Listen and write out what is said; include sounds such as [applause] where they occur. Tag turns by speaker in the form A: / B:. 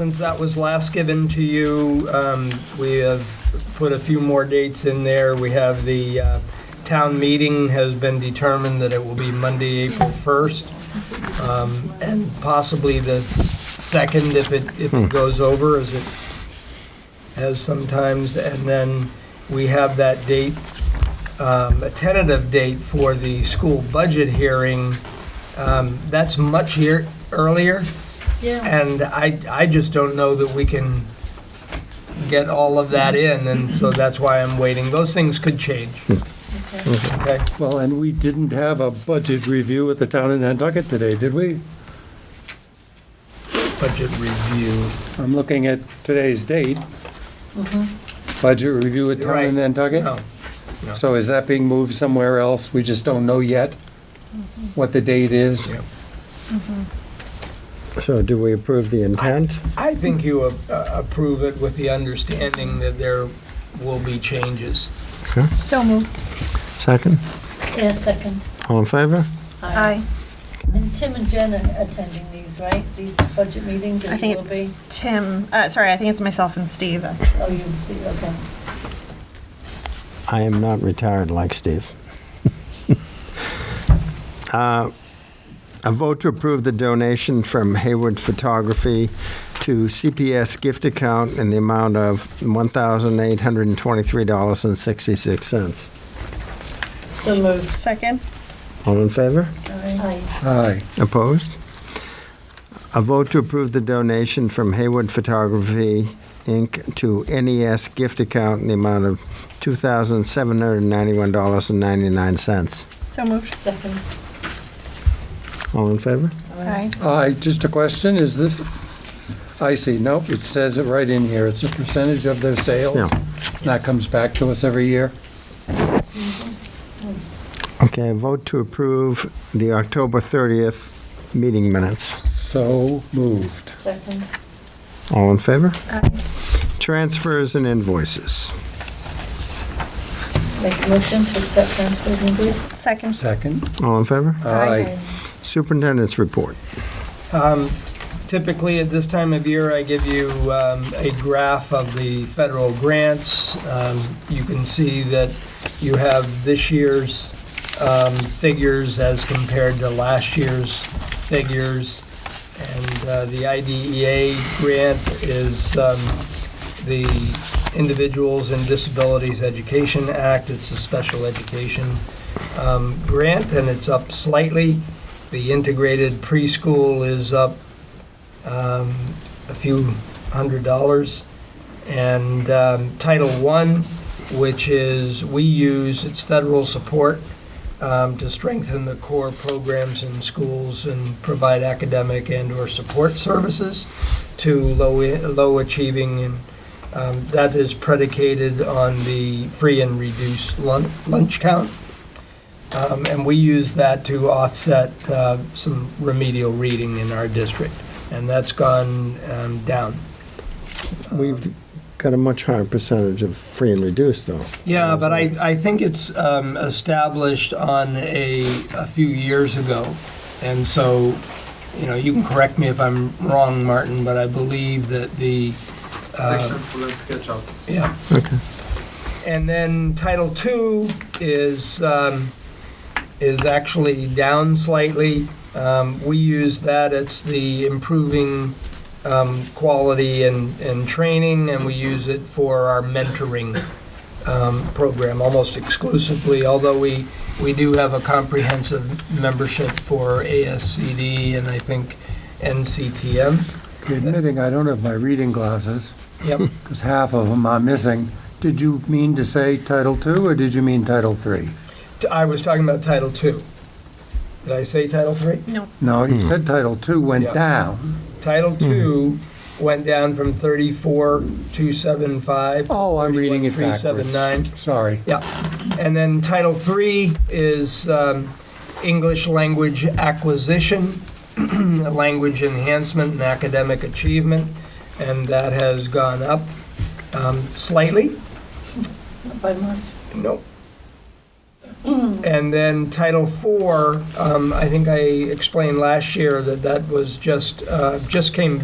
A: Since that was last given to you, um, we have put a few more dates in there. We have the uh, town meeting has been determined that it will be Monday, April 1st, um, and possibly the 2nd if it, if it goes over, as it has sometimes. And then we have that date, um, a tentative date for the school budget hearing. Um, That's much ear- earlier.
B: Yeah.
A: And I, I just don't know that we can get all of that in, and so that's why I'm waiting. Those things could change,
B: okay.
A: okay?
C: Well, and we didn't have a budget review at the town in Nantucket today, did we?
A: Budget review.
C: I'm looking at today's date. Budget review at town
A: Mm-hmm. Right.
C: in
A: No,
C: Nantucket? So is that being moved somewhere else? We just don't know yet what the date is?
A: Mm-hmm. Yeah.
D: So do we approve the intent?
A: I think you a- a- approve it with the understanding that there will be changes.
B: So moved.
D: Second?
B: Yeah, second.
D: All in favor?
B: Uh,
E: Aye.
B: And Tim and Jen are attending these, right? These budget meetings, or
E: I
B: you
E: think
B: will be?
E: it's Tim, uh, sorry, I think it's myself and Steve. Uh,
B: Oh, you and Steve, okay.
D: I am not retired like Steve. [laughs] Uh, A vote to approve the donation from Hayward Photography to CPS gift account in the amount of $1,823.66.
B: So moved.
E: Second?
D: All in favor?
B: Aye.
C: Aye.
D: Opposed? A vote to approve the donation from Hayward Photography, Inc. to NES gift account in the amount of $2,791.99.
E: So moved.
B: Second.
D: All in favor?
E: Aye.
C: Aye, just a question, is this, I see, nope, it says it right in here, it's a percentage of their sales.
D: Yeah.
C: That comes back to us every year.
B: Yes.
D: Okay, a vote to approve the October 30th meeting minutes.
C: So moved.
B: Second.
D: All in favor?
E: Aye.
D: Transfers and invoices.
B: Make a motion to accept transfers and fees.
E: Second?
C: Second?
D: All in favor?
C: Aye.
D: Superintendent's report.
A: Um, Typically, at this time of year, I give you um, a graph of the federal grants. Um, You can see that you have this year's um, figures as compared to last year's figures. And uh, the IDEA grant is um, the Individuals and Disabilities Education Act. It's a special education um, grant, and it's up slightly. The integrated preschool is up um, a few hundred dollars. And um, Title I, which is, we use, it's federal support um, to strengthen the core programs in schools and provide academic and/or support services to low, low achieving. And um, that is predicated on the free and reduced lun- lunch count. Um, And we use that to offset uh, some remedial reading in our district, and that's gone um, down.
D: We've got a much higher percentage of free and reduced, though.
A: Yeah, but I, I think it's um, established on a, a few years ago, and so, you know, you can correct me if I'm wrong, Martin, but I believe that the, uh,
F: Except for the ketchup.
A: yeah,
D: Okay.
A: And then Title II is, um, is actually down slightly. Um, We use that, it's the improving um, quality and, and training, and we use it for our mentoring um, program almost exclusively, although we, we do have a comprehensive membership for ASCD and I think NCTM.
C: Admitting I don't have my reading glasses, [laughs]
A: Yep.
C: because half of them are missing. Did you mean to say Title II, or did you mean Title III?
A: T- I was talking about Title II. Did I say Title III?
E: No.
C: No, you said Title II
A: Yeah.
C: went down.
A: Title
C: Hmm.
A: II went down from 34,275 to
C: Oh, I'm reading it backwards.
A: 31,379.
C: Sorry.
A: Yeah. And then Title III is um, English language acquisition, [clears throat] language enhancement and academic achievement, and that has gone up um, slightly.
B: By March.
A: Nope. And then Title IV, um, I think I explained last year that that was just, uh, just came